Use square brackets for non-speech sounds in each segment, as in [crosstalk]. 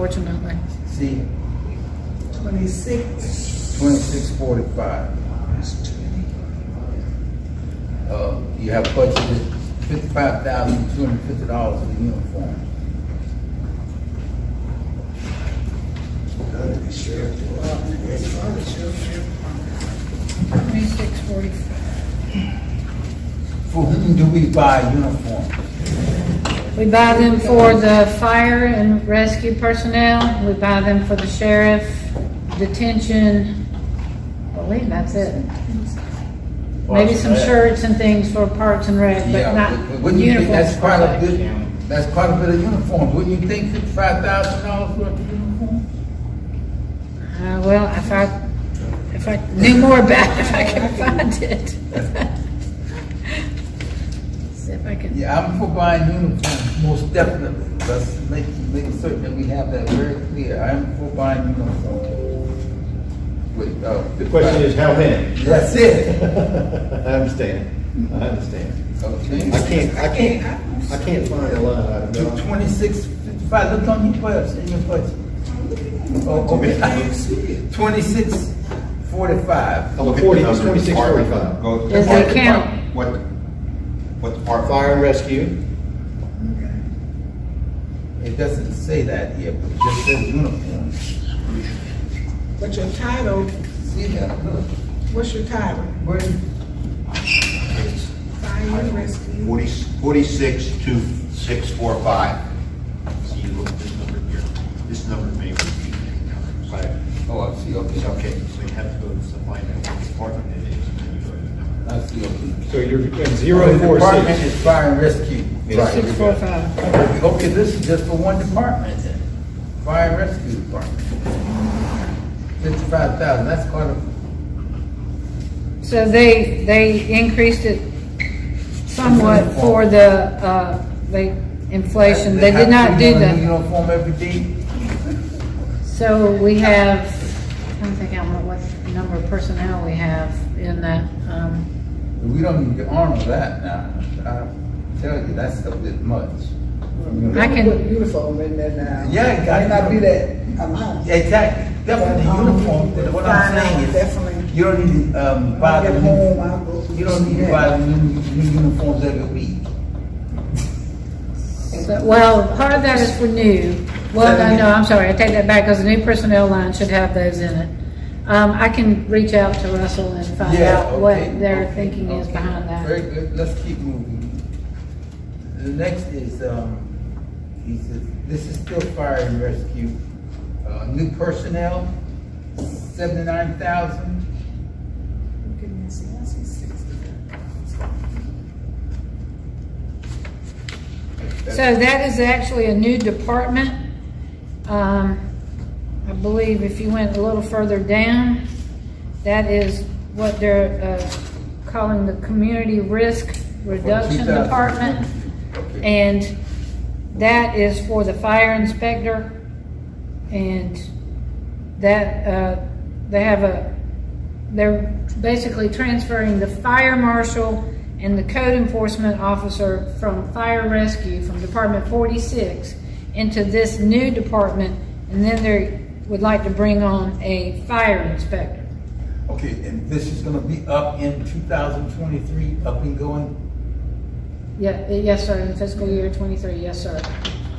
Unfortunately. See, Twenty-six. twenty-six forty-five. Uh, you have budgeted fifty-five thousand, two hundred and fifty dollars for the uniform. Twenty-six forty-five. For whom do we buy uniforms? We buy them for the fire and rescue personnel, we buy them for the sheriff, detention, I believe that's it. Maybe some shirts and things for parks and rec, but Yeah, not but uniforms. wouldn't you think that's per quite a se. good, that's quite a bit of uniform, wouldn't you think fifty-five thousand dollars worth of uniform? Uh, well, if I, if I knew more about it, if I [laughs] could find [laughs] it. See if I can, Yeah, I'm for buying uniforms, most definitely, let's make, make certain that we have that very clear, I'm for buying uniforms. With, uh. The question is, how many? That's it, I understand, I understand. okay? I can't, I can't, I can't find a line item. To no. Twenty-six, fifty-five, look on your budget, in your budget. Oh, okay. [laughs] Twenty-six, forty-five. Oh, Look at the 40, number of 26, department. 35. Go- Does what it count? depart- What, what department? Fire and rescue, It doesn't say that here, but it just says uniform. But your title, See that, look, what's your title? where, Fire and rescue. Forty, forty-six to six, four, five. See, look at this number here. This number may repeat many times. Right. oh, I see, It's okay, okay, so you have to go to find out what department it is, and then you go to the number. I see, okay. so you're between zero and The four Department six. is fire and rescue. Right. six, four, five. Okay, this is just for one department then, fire and rescue department. Fifty-five thousand, that's quite a, So they, they increased it somewhat for the, uh, the inflation, they did not do Have to be the, on the Uniform every day. so we have, I'm thinking, I don't know what number of personnel we have in that, um, We don't even get armed with that now. I tell you, that's a bit much. I can- Put Uniform in there now. Yeah, it got- May not be that amount. Exactly, definitely But, um, uniform, but what I'm fine, saying is, Definitely. you don't need to, um, buy Get the home, new, I'll go. you don't need to Yeah. buy the new, new uniforms every week. so- well, part of that is for new. Well, no, no, I'm sorry, I take that back, because the new personnel line should have those in it. Um, I can reach out to Russell and find Yeah, out what okay, their okay, thinking is okay. behind that. Very good, let's keep moving. The next is, um, he says, this is still fire and rescue, uh, new personnel, seventy-nine thousand. So that is actually a new department. Um, I believe if you went a little further down, that is what they're uh, calling the Community Risk Reduction Department. And that is for the fire inspector. And that, uh, they have a, they're basically transferring the fire marshal and the code enforcement officer from fire rescue, from Department forty-six, into this new department, and then they would like to bring on a fire inspector. Okay, and this is gonna be up in two thousand twenty-three, up and going? Yeah, yes, sir, in fiscal year twenty-three, yes, sir.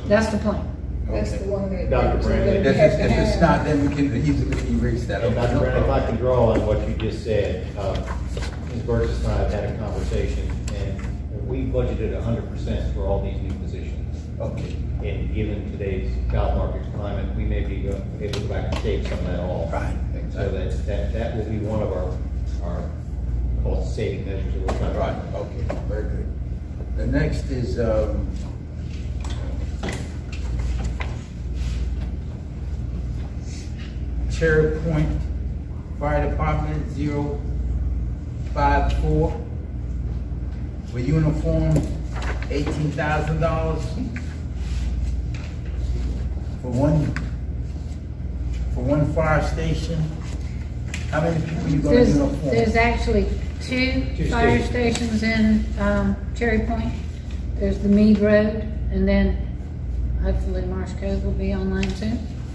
That's the plan. That's the Okay. one that. Dr. Brandon. If that we have it's, to if it's have. not, then we can easily erase that. And Dr. Brown, if I can draw on what you just said, uh, Ms. Burgess and I have had a conversation, and we budgeted hundred percent for all these new positions. Okay, And given today's job market climate, we may be go- able to go back and save some of that all. Right. So that, that, that will be one of our, our cost saving measures that we're trying all to. right, okay, very good. The next is, um, Cherry Point Fire Department, zero five four. For uniform, eighteen thousand dollars. For one, for one fire station. How many people you gonna There's, uniform? there's actually two Two fire stations stations. in, um, Cherry Point. There's the Mead Road, and then, hopefully Marsh Cove will be online too.